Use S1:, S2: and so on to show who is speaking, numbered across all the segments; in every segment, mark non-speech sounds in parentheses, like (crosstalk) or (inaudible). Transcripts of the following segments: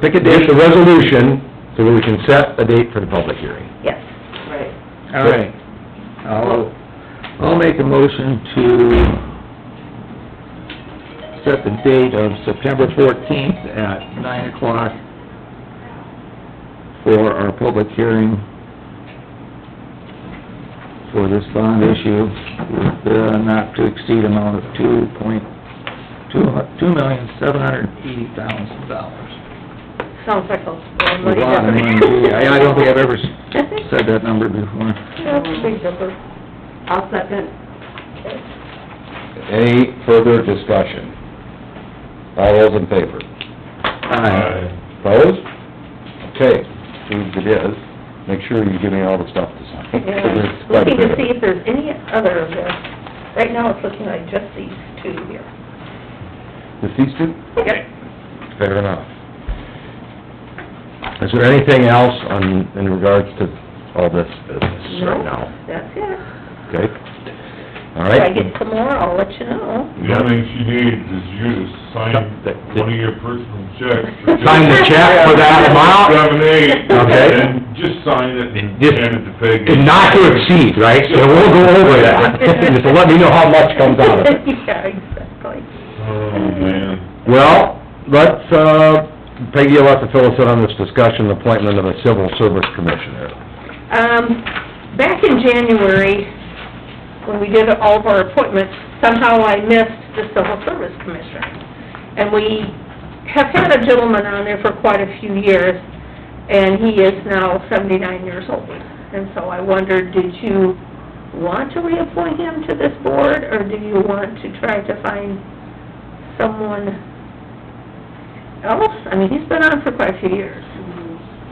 S1: Pick a date, a resolution, so we can set a date for the public hearing.
S2: Yes.
S3: Right.
S4: All right. I'll, I'll make a motion to set the date of September fourteenth at nine o'clock for our public hearing for this bond issue with the not to exceed amount of two point, two, two million, seven hundred eighty thousand dollars.
S2: Sounds like a lot of
S4: A
S2: money.
S4: lot of money.
S2: doesn't it?
S4: I I don't think
S2: (laughs)
S4: I've ever said that number before.
S2: That's a big number.
S3: I'll second.
S1: Any further discussion? All those in favor?
S4: Aye.
S1: Opposed? Okay, approved it is. Make sure you give me all the stuff to sign. (laughs)
S2: Yeah, looking to see if there's any other of this. Right now, it's looking like just these two here.
S1: The cease to?
S2: Yep.
S1: Fair enough. Is there anything else on, in regards to all this business right now?
S2: That's it.
S1: Okay? All
S2: If I
S1: right?
S2: get some more, I'll let you know.
S5: The only thing she needs is you to sign one of your personal checks. for just
S1: Sign the check for that amount?
S5: (laughs) Seven, eight,
S1: Okay.
S2: (laughs)
S5: and just sign it and
S1: Just-
S5: hand it to Peggy.
S1: And not to exceed, right? So we'll go over that. Just let me know how much comes out of it.
S2: Yeah, exactly.
S5: Oh, man.
S1: Well, let's, uh, Peggy, you'll have to fill us in on this discussion, appointment of a civil service commissioner.
S2: Um, back in January, when we did all of our appointments, somehow I missed the Civil Service Commissioner. And we have had a gentleman on there for quite a few years, and he is now seventy-nine years old. And so I wondered, did you want to reappoint him to this board, or do you want to try to find someone else? I mean, he's been on for quite a few years.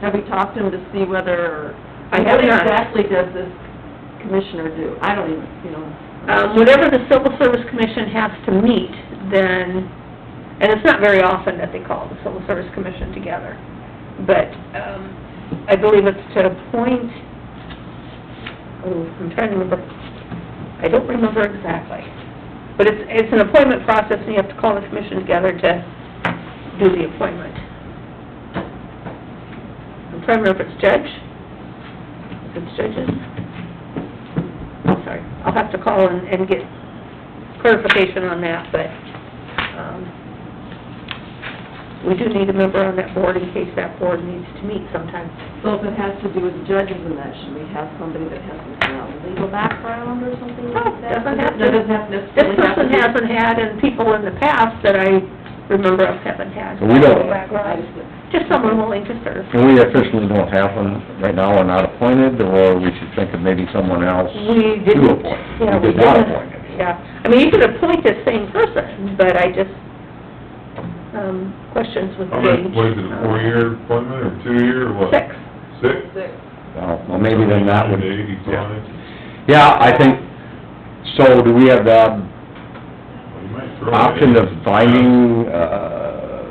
S3: Have you talked to him to see whether,
S2: I have
S3: what
S2: not.
S3: exactly does this commissioner do? I don't even, you know.
S2: um, whatever the Civil Service Commission has to meet, then, and it's not very often that they call the Civil Service Commission together, but, um, I believe it's to appoint, oh, I'm trying to remember, I don't remember exactly, but it's, it's an appointment process, and you have to call the commission together to do the appointment. I'm trying to remember if it's judge, if it's judges. I'm sorry, I'll have to call and, and get clarification on that, but, um, we do need a member on that board in case that board needs to meet sometime.
S3: So if it has to do with the judges and that, should we have somebody that has some kind of legal background or something like that?
S2: Doesn't have to.
S3: That doesn't have
S2: This
S3: necessarily have to
S2: person
S3: be-
S2: hasn't had, and people in the past that I remember of haven't had.
S1: We don't-
S3: I
S2: Background.
S3: just-
S2: Just someone willing to serve.
S1: And we officially don't have one right now, we're not appointed, or we should think of maybe someone else.
S2: We didn't.
S1: To appoint.
S2: Yeah,
S1: We
S2: we
S1: did not
S2: didn't.
S1: appoint him.
S2: Yeah, I mean, you could appoint the same person, but I just, um, questions with
S5: How
S2: the
S5: much,
S2: age.
S5: was it a four-year appointment or two-year or what?
S2: Six.
S5: Six?
S1: Uh, Well, well, maybe then that would...
S5: Eighty-five.
S1: Yeah, I think, so do we have the
S5: Well, you might throw it
S1: option of
S5: in.
S1: finding, uh,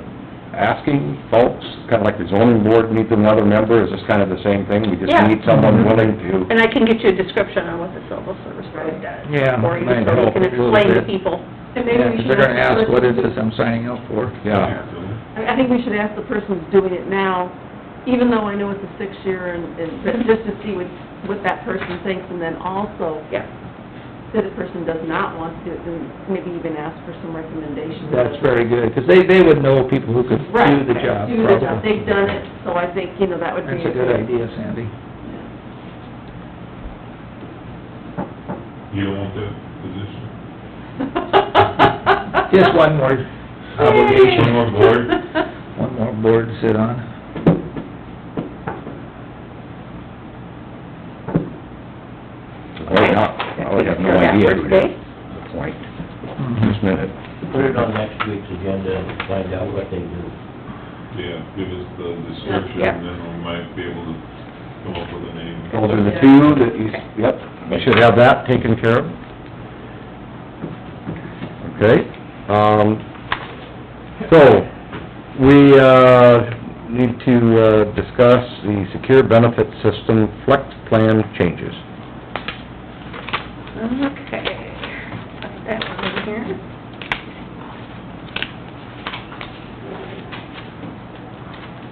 S1: asking folks, kinda like the zoning board needs another member, is this kind of the same thing? We just
S2: Yeah.
S1: need someone willing to...
S2: And I can get you a description on what the civil service board does.
S4: Yeah,
S2: Or you
S4: might
S2: can, so we
S4: help a
S2: can
S4: little
S2: explain to
S4: bit.
S2: people.
S3: And maybe
S4: Yeah,
S3: we
S4: 'cause
S3: should
S4: they're gonna
S3: the
S4: ask, what is
S3: person-
S4: this I'm signing up for?
S1: Yeah,
S3: I I think we should ask the person who's doing it now, even though I know it's a six-year and, and, but just to see what, what that person thinks, and then also,
S1: (laughs)
S2: Yeah.
S3: if the person does not want to do it, then maybe even ask for some recommendations.
S4: That's very good, 'cause they, they would know people who could
S3: Right,
S4: do the job.
S3: Do the job,
S4: probably.
S3: they've done it, so I think, you know, that would be.
S4: That's a good idea, Sandy.
S5: You don't want that position?
S4: Just one more
S5: One
S4: obligation,
S5: more board?
S1: (laughs)
S4: one more board to sit on.
S1: Oh, yeah.
S2: (laughs)
S1: I would have no
S2: You're back
S1: idea
S2: for
S1: who it
S2: today?
S1: is. Good Point, just a minute.
S6: Put it on next week's agenda and find out what they do.
S5: Yeah, give us the description,
S2: Yeah.
S5: and then we might be able to come up with a name.
S1: Those are the two that you, yep, we should have that taken care of. Okay, um, so, we, uh, need to, uh, discuss the secure benefit system flex plan changes.
S2: Okay. Put that one in here.